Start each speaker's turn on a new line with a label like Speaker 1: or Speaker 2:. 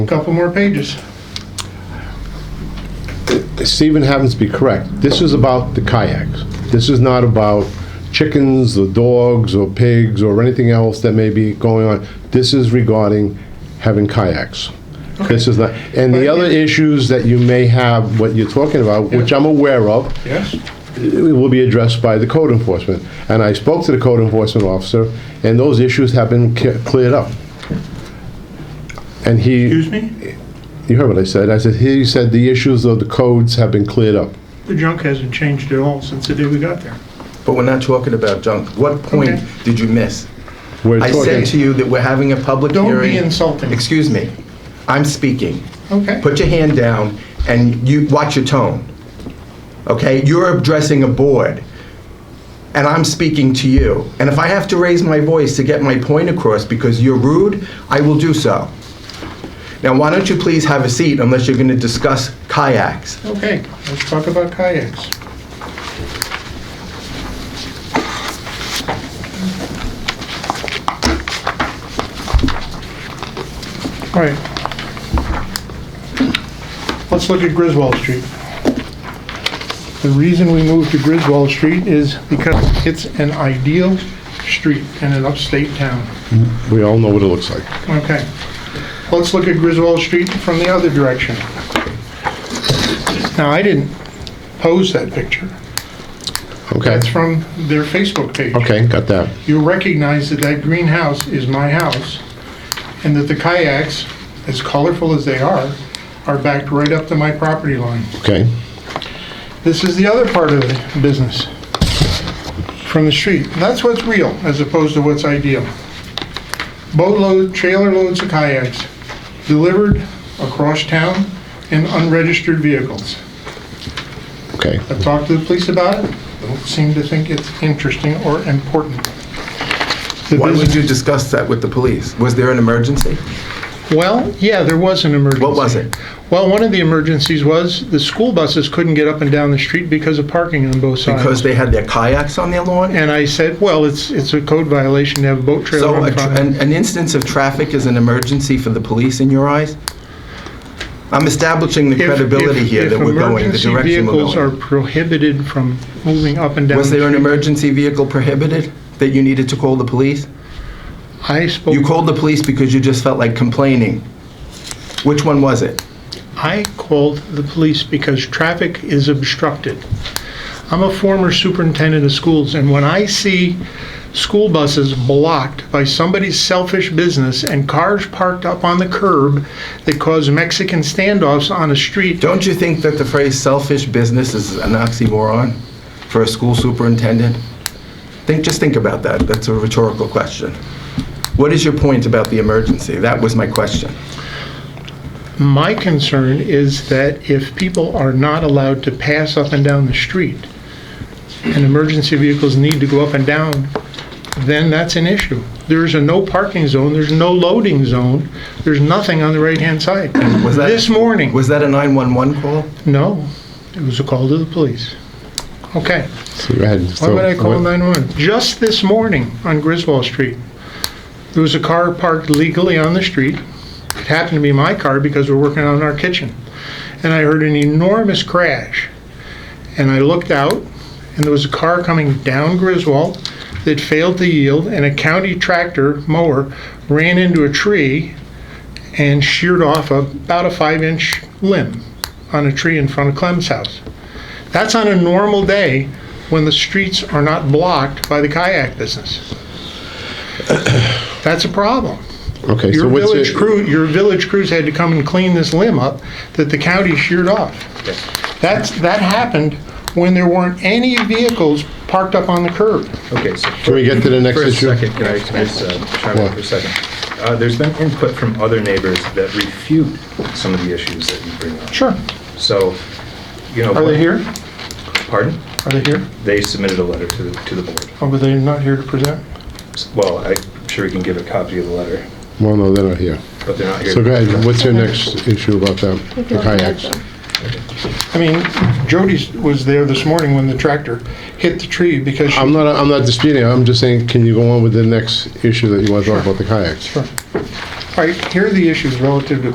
Speaker 1: A Couple more pages.
Speaker 2: Stephen happens to be correct. This is about the kayaks. This is not about chickens or dogs or pigs or anything else that may be going on. This is regarding having kayaks. This is not, and the
Speaker 1: But-
Speaker 2: other issues that you may have, what you're talking about, which
Speaker 1: Yeah.
Speaker 2: I'm aware of,
Speaker 1: Yes?
Speaker 2: it will be addressed by the code enforcement. And I spoke to the code enforcement officer, and those issues have been ca- cleared up. And he.
Speaker 1: Excuse me?
Speaker 2: You heard what I said. I said, he said the issues of the codes have been cleared up.
Speaker 1: The junk hasn't changed at all since the day we got there.
Speaker 3: But we're not talking about junk. What point
Speaker 1: Okay.
Speaker 3: did you miss?
Speaker 2: We're
Speaker 3: I said to
Speaker 2: talking,
Speaker 3: you that we're having a public
Speaker 1: Don't
Speaker 3: hearing.
Speaker 1: be insulting.
Speaker 3: Excuse me. I'm speaking.
Speaker 1: Okay.
Speaker 3: Put your hand down and you, watch your tone. Okay? You're addressing a board and I'm speaking to you. And if I have to raise my voice to get my point across because you're rude, I will do so. Now, why don't you please have a seat unless you're going to discuss kayaks?
Speaker 1: Okay, let's talk about kayaks. All right. Let's look at Griswold Street. The reason we moved to Griswold Street is because it's an ideal street in an upstate town.
Speaker 2: we all know what it looks like.
Speaker 1: Okay. Let's look at Griswold Street from the other direction. Now, I didn't pose that picture.
Speaker 2: Okay?
Speaker 1: That's from their Facebook page.
Speaker 2: Okay, got that.
Speaker 1: You recognize that that greenhouse is my house, and that the kayaks, as colorful as they are, are backed right up to my property line.
Speaker 2: Okay.
Speaker 1: This is the other part of the business, from the street. And That's what's real, as opposed to what's ideal. Boatload, trailer loads of kayaks delivered across town in unregistered vehicles.
Speaker 2: Okay.
Speaker 1: I've talked to the police about it, don't seem to think it's interesting or important. The
Speaker 3: Why would
Speaker 1: business-
Speaker 3: you discuss that with the police? Was there an emergency?
Speaker 1: Well, yeah, there was an emergency.
Speaker 3: What was it?
Speaker 1: Well, one of the emergencies was the school buses couldn't get up and down the street because of parking on both sides.
Speaker 3: Because they had their kayaks on their lawn?
Speaker 1: And I said, well, it's, it's a code violation to have a boat trailer
Speaker 3: So a
Speaker 1: on
Speaker 3: tr-
Speaker 1: fire.
Speaker 3: an, an instance of traffic is an emergency for the police in your eyes? I'm establishing the
Speaker 1: If-
Speaker 3: credibility
Speaker 1: if-
Speaker 3: here that we're going, the
Speaker 1: If emergency
Speaker 3: direction we're
Speaker 1: vehicles are
Speaker 3: going.
Speaker 1: prohibited from moving up and down.
Speaker 3: Was
Speaker 1: the
Speaker 3: there an
Speaker 1: street,
Speaker 3: emergency vehicle prohibited that you needed to call the police?
Speaker 1: I
Speaker 3: You
Speaker 1: spoke,
Speaker 3: called the police because you just felt like complaining. Which one was it?
Speaker 1: I called the police because traffic is obstructed. I'm a former superintendent of schools, and when I see school buses blocked by somebody's selfish business and cars parked up on the curb that cause Mexican standoffs on a street,
Speaker 3: Don't you think that the phrase selfish business is an oxymoron for a school superintendent? Think, just think about that. That's a rhetorical question. What is your point about the emergency? That was my question.
Speaker 1: My concern is that if people are not allowed to pass up and down the street, and emergency vehicles need to go up and down, then that's an issue. There's a no parking zone, there's no loading zone, there's nothing on the right-hand side.
Speaker 3: Was that
Speaker 1: This morning,
Speaker 3: Was that a 911 call?
Speaker 1: no, it was a call to the police. Okay,
Speaker 2: So go ahead.
Speaker 1: why
Speaker 2: So-
Speaker 1: would I call 911? Just this morning on Griswold Street, there was a car parked legally on the street. It happened to be my car because we're working on our kitchen. And I heard an enormous crash. And I looked out, and there was a car coming down Griswold that failed to yield, and a county tractor mower ran into a tree and sheared off about a five-inch limb on a tree in front of Clem's house. That's on a normal day when the streets are not blocked by the kayak business. That's a problem.
Speaker 2: Okay, so
Speaker 1: Your
Speaker 2: what's
Speaker 1: village
Speaker 2: it?
Speaker 1: crew, your village crews had to come and clean this limb up that the county sheared off. That's, that happened when there weren't any vehicles parked up on the curb.
Speaker 4: Okay, so.
Speaker 2: Can we get to the next issue?
Speaker 4: For a second, can I, can I just uh, chime in for a second? Uh, There's been input from other neighbors that refute some of the issues that you bring up.
Speaker 1: Sure.
Speaker 4: So, you know.
Speaker 1: Are they here?
Speaker 4: Pardon?
Speaker 1: Are they here?
Speaker 4: They submitted a letter to, the to the board.
Speaker 1: Or were they not here to present?
Speaker 4: Well, I'm sure we can give a copy of the letter,
Speaker 2: Well, no, they're not here.
Speaker 4: but they're not here.
Speaker 2: So go ahead. What's your next issue about them? The kayaks?
Speaker 1: I mean, Jody was there this morning when the tractor hit the tree because she
Speaker 2: I'm not, I'm not disputing. it. I'm just saying, can you go on with the next issue that you want to talk about the kayaks?
Speaker 1: All right, here are the issues relative to